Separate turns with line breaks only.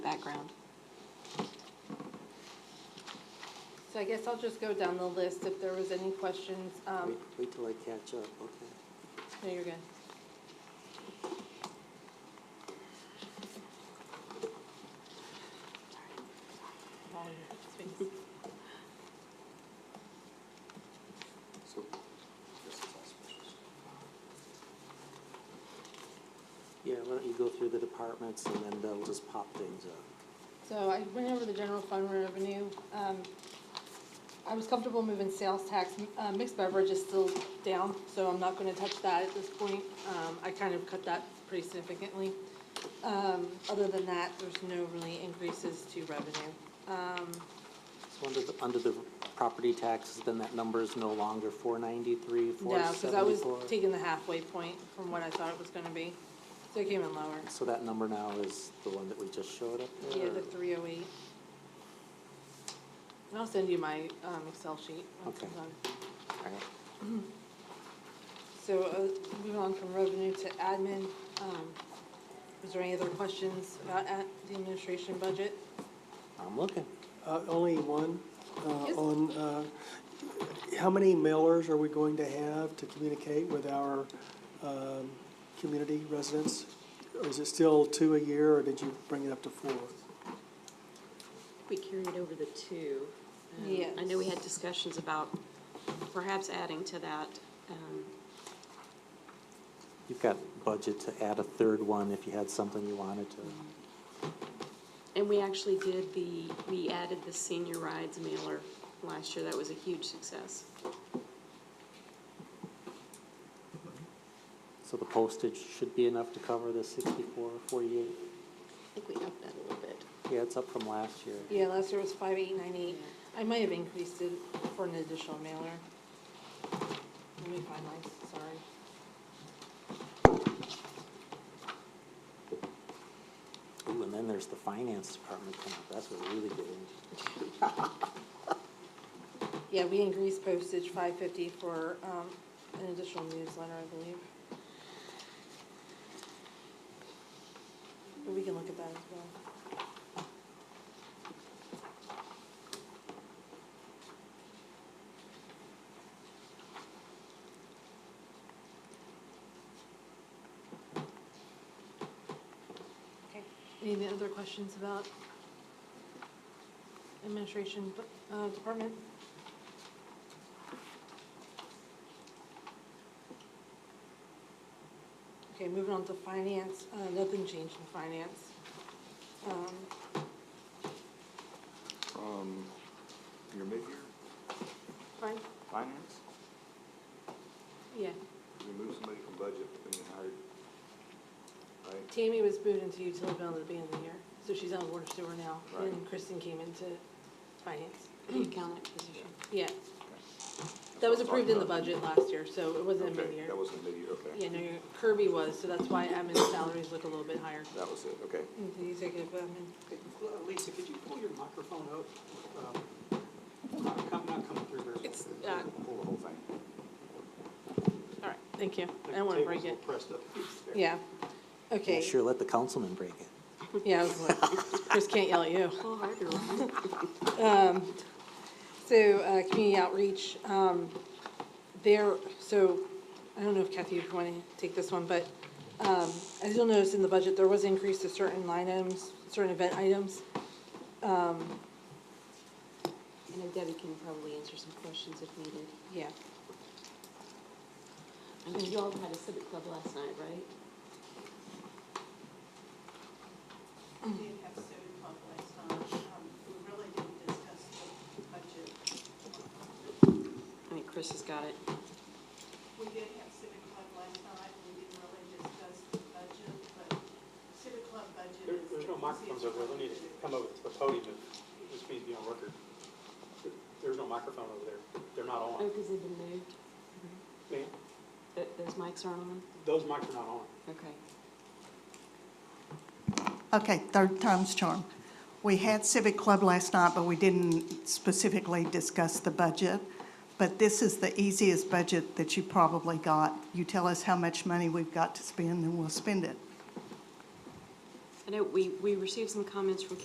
background.
So I guess I'll just go down the list if there was any questions. Um,
Wait- Wait till I catch up, okay.
No, you're good. All your space.
So, this is all specials.
Yeah, why don't you go through the departments and then they'll just pop things up.
So I went over the general fund revenue. Um, I was comfortable moving sales tax. Uh, Mixed beverage is still down, so I'm not gonna touch that at this point. Um, I kind of cut that pretty significantly. Um, Other than that, there's no really increases to revenue.
So under the, under the property taxes, then that number is no longer four ninety-three, four
No, because I was
seventy-four?
taking the halfway point from what I thought it was gonna be, so it came in lower.
So that number now is the one that we just showed up there?
Yeah, the three oh eight. And I'll send you my um, Excel sheet. once
Okay.
I'm done.
Alright.
So uh, moving on from revenue to admin, um, is there any other questions about ad- the administration budget?
I'm looking.
Uh, Only one, uh,
Yes.
on, uh, how many mailers are we going to have to communicate with our um, community residents? Or Is it still two a year, or did you bring it up to four?
We carried over the two. Um, I know we had discussions about perhaps adding to that. um,
You've got budget to add a third one if you had something you wanted to.
And we actually did the, we added the senior rides mailer last year. That was a huge success.
So the postage should be enough to cover the sixty-four, forty-eight?
I think we upped that a little bit.
Yeah, it's up from last year.
Yeah, last year was five eight nine eight. I might have increased it for an additional mailer. Let me find mine, sorry.
Ooh, and then there's the finance department coming up, that's what really good.
Yeah, we increased postage five fifty for, um, an additional newsletter, I believe. But we can look at that as well. Okay. Any other questions about administration, uh, department? Okay, moving on to finance, uh, nothing changed in finance. Um,
Um, your mid-year
fine,
finance,
yeah.
you moved somebody from budget when you hired, right?
Tammy was moved into utility bill at the beginning of the year, so she's on water sewer now, and
Right.
Kristen came into finance.
The accountant position.
Yeah,
That's
that was
what I'm
approved in the
talking about.
budget last year, so it wasn't a
Okay,
mid-year.
that wasn't mid-year, okay.
Yeah, no, your- Kirby was, so that's why admin salaries look a little bit higher.
That was it, okay.
Mm, The executive admin,
Lisa, could you pull your microphone up? Um, Not come- not coming through very well.
it's, uh,
Pull the whole thing.
all right, thank you, I don't wanna
Table's
break
all
it.
Pressed up against there.
Yeah,
Yeah,
okay,
Sure, let the councilman break it.
yeah, I was like, Chris can't yell at you.
A little harder, wasn't it?
So, uh, community outreach, um, there, so, I don't know if Kathy, if you wanna take this one, but, um, as you'll notice in the budget, there was increase to certain line items, certain event items.
I know Debbie can probably answer some questions if needed.
Yeah,
I know you all had a civic club last night, right?
We did have student talk last time. Um, We really didn't discuss the budget.
I think Chris has got it.
We did have civic club last night, we didn't really discuss the budget, but civic club budget
There-
is.
There's no microphones over there, we need to come over to the podium, and this needs to be on record. There- There's no microphone over there, they're not
Uh,
Oh,
on.
because they've been moved.
Man,
Th- Those mics aren't on?
Those mics are not on.
Okay.
Okay, third time's charm. We had Civic Club last night, but we didn't specifically discuss the budget. But this is the easiest budget that you probably got. You tell us how much money we've got to spend, and we'll spend it.
I know we, we received some comments from